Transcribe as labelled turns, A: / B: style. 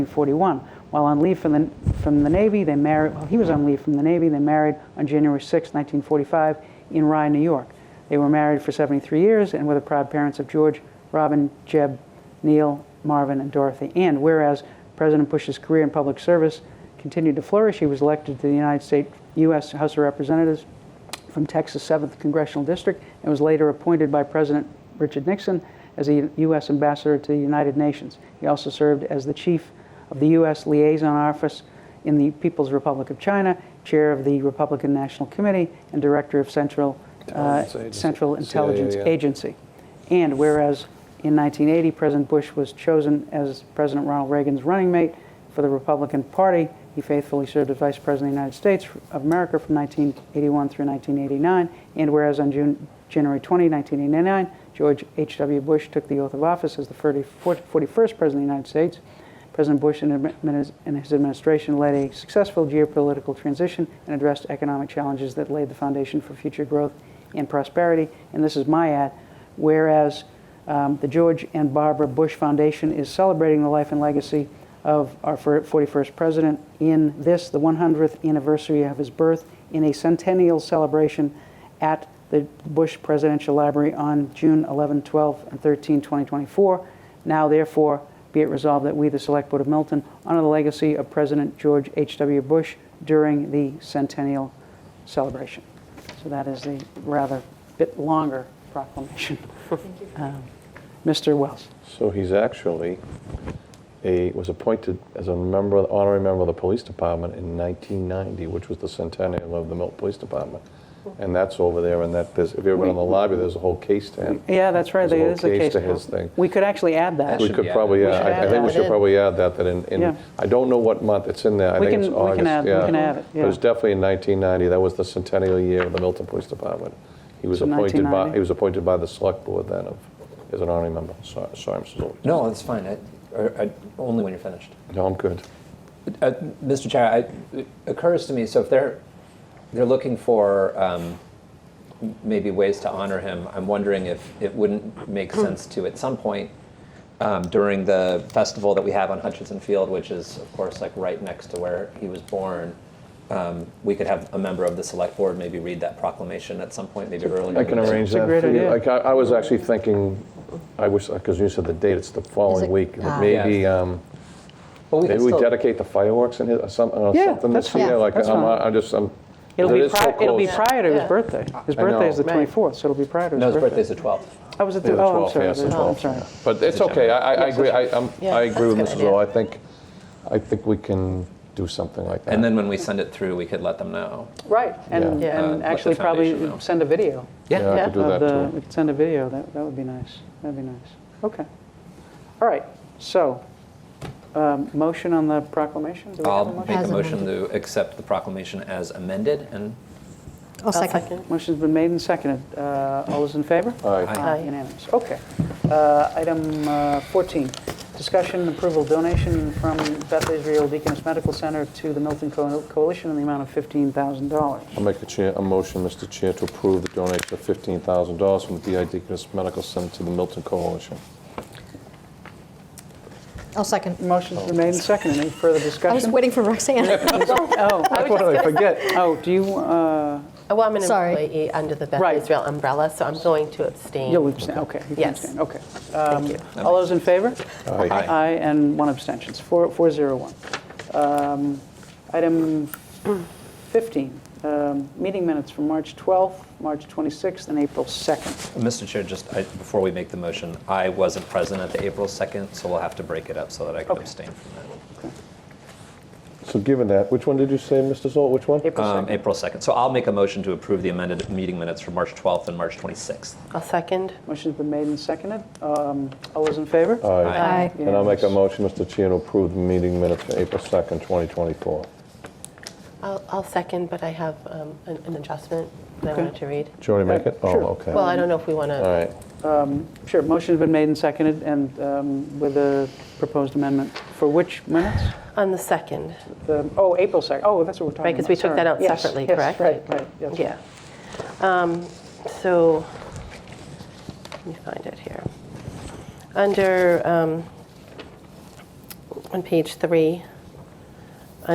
A: 1941. While on leave from the, from the Navy, they married, well, he was on leave from the Navy, they married on January 6, 1945, in Rye, New York. They were married for 73 years and were the proud parents of George, Robin, Jeb, Neil, Marvin, and Dorothy. And whereas President Bush's career in public service continued to flourish, he was elected to the United States U.S. House of Representatives from Texas 7th Congressional District and was later appointed by President Richard Nixon as a U.S. ambassador to the United Nations. He also served as the chief of the U.S. Liaison Office in the People's Republic of China, chair of the Republican National Committee, and director of Central, uh,
B: Intelligence Agency.
A: Central
B: CIA,
A: Intelligence
B: yeah.
A: Agency. And whereas in 1980, President Bush was chosen as President Ronald Reagan's running mate for the Republican Party, he faithfully served as Vice President of the United States of America from 1981 through 1989. And whereas on June, January 20, 1989, George H.W. Bush took the oath of office as the 30 40 41st President of the United States, President Bush and admin- and his administration led a successful geopolitical transition and addressed economic challenges that laid the foundation for future growth and prosperity. And this is my ad. Whereas um, the George and Barbara Bush Foundation is celebrating the life and legacy of our fir- 41st president in this, the 100th anniversary of his birth, in a centennial celebration at the Bush Presidential Library on June 11, 12, and 13, 2024. Now, therefore, be it resolved that we, the Select Board of Milton, honor the legacy of President George H.W. Bush during the centennial celebration. So that is a rather bit longer proclamation. Um, Mr. Wells.
B: So he's actually a, was appointed as a member, honorary member of the police department in 1990, which was the centennial of the Milton Police Department. And that's over there, and that, there's, if you ever been in the lobby, there's a whole case to him.
A: Yeah, that's right. There
B: There's
A: is a case.
B: to his thing.
A: We could actually add that.
B: We
C: should
B: could
C: be
B: probably,
C: added.
B: yeah,
A: We should
B: I I
A: add
B: think we
A: that
B: should
C: in.
B: probably add that, that in,
A: Yeah.
B: in, I don't know what month, it's in there, I
A: We
B: think
A: can-
B: it's
A: we can
B: August.
A: add- we
B: yeah.
A: can add it,
B: But it's
A: yeah.
B: definitely in 1990, that was the centennial year of the Milton Police Department. He was
A: So
B: appointed by,
A: 1990?
B: he was appointed by the select board then of, as an honorary member. Sorry, sorry, Mr. Zoli.
C: No, it's fine. I, I, I- only when you're finished.
B: No, I'm good.
C: Uh, Mr. Chair, I, it occurs to me. So if they're they're looking for um, m- maybe ways to honor him, I'm wondering if it wouldn't make sense to at some point um, during the festival that we have on Hutchinson Field, which is of course like right next to where he was born. Um, we could have a member of the select board maybe read that proclamation at some point, maybe earlier.
B: I can
C: in the-
B: arrange
A: a
B: that
A: great
B: for you.
A: idea.
B: Like, I, I was actually thinking, I wish, because you said the date, it's the following
D: it-
B: week.
D: ah.
B: Maybe, um,
C: But we could
B: maybe we
C: still-
B: dedicate the fireworks in it or something, or
A: Yeah,
B: something this
A: that's fine.
B: year. Like,
A: That's
B: I'm,
A: fine.
B: I'm just, I'm.
A: It'll be
B: it is so
A: prior, it'll be
B: close.
A: prior to his
D: Yeah.
A: birthday. His
B: I know.
A: birthday is the
D: Right.
A: 24th, so it'll be prior to
C: No,
A: his
C: his
A: birthday.
C: birthday's the 12th.
A: I was at
B: Yeah,
A: the,
B: the
A: oh, I'm
B: 12th,
A: sorry.
B: yeah, it's the
A: Oh, I'm
B: 12th,
A: sorry.
B: But it's okay, I, I- I agree, I, I'm-
D: Yeah,
B: I agree with
D: that's a
B: Mrs.
D: good
B: Rowe. I
D: idea.
B: think, I think we can do something like that.
C: And then when we send it through, we could let them know.
A: Right, and,
B: Yeah.
C: Uh,
A: and
C: let the
A: actually
C: foundation know.
A: probably send a video.
B: Yeah, I
D: Yeah.
B: could do
A: of
B: that
A: the-
B: too.
A: We could send a video, that, that would be nice, that'd be nice. Okay. All right, so, um, motion on the proclamation? Do we have a
B: Um,
C: I'll
A: motion?
C: make a
D: As
C: motion to accept the proclamation as amended and
D: I'll second.
A: Motion's been made and seconded. Uh, All those in favor?
B: All
C: Aye.
B: right,
D: Aye.
A: Unanimous. Okay. Uh, Item uh, 14, discussion and approval of donation from Beth Israel Deaconess Medical Center to the Milton Co- Coalition in the amount of $15,000.
B: I'll make a chair, a motion, Mr. Chair, to approve the donation of fifteen thousand dollars from the B.I. Deaconess Medical Center to the Milton Coalition.
D: I'll second.
A: Motion's been made and seconded. Any further
D: I was
A: discussion?
D: waiting for Roxanne.
A: Oh,
B: What did I forget?
A: oh, do you, uh,
E: Oh, Well, I'm an
D: Sorry.
E: employee under the Beth
A: Right.
E: Israel umbrella, so I'm going to abstain.
B: Oh,
A: you'll abstain, okay. you can
E: Yes.
A: abstain. Okay. Um, All those in favor?
B: Aye. Aye.
A: Aye, and one abstention, It's four- 401. Um, Item 15, um, meeting minutes from March 12th, March 26th, and April 2nd.
C: Mr. Chair, just I, before we make the motion, I wasn't present at the April 2nd, so we'll have to break it up so that I can
A: Okay.
C: abstain from that.
B: So given that, which one did you say, Mr. Zoll, which one?
A: April
C: Um,
A: 2nd.
C: April 2nd. So I'll make a motion to approve the amended meeting minutes for March 12th and March 26th.
E: I'll second.
A: Motion's been made and seconded. Um, All those in favor?
B: Aye.
D: Aye.
B: And I'll make a
A: Unanimous.
B: motion, Mr. Chair, to approve the meeting minutes for April 2nd, 2024.
E: I'll, I'll second, but I have um, an an adjustment that I
A: Okay.
E: wanted to read.
B: Did you already make it?
A: Sure.
B: Oh, okay.
E: Well,
B: All
E: I don't know if we want to,
B: right.
A: Sure, motion's been made and seconded, and um, with a proposed amendment. For which minutes?
E: on the second,
A: The- Oh, April 2nd, oh, that's what we're talking about.
E: Right, 'cause we took that
A: Sorry.
E: out
A: Yes,
E: separately,
A: yes,
E: correct?
A: right, right, yes.
E: yeah. Um, So, let me find it here. Under um, on page three.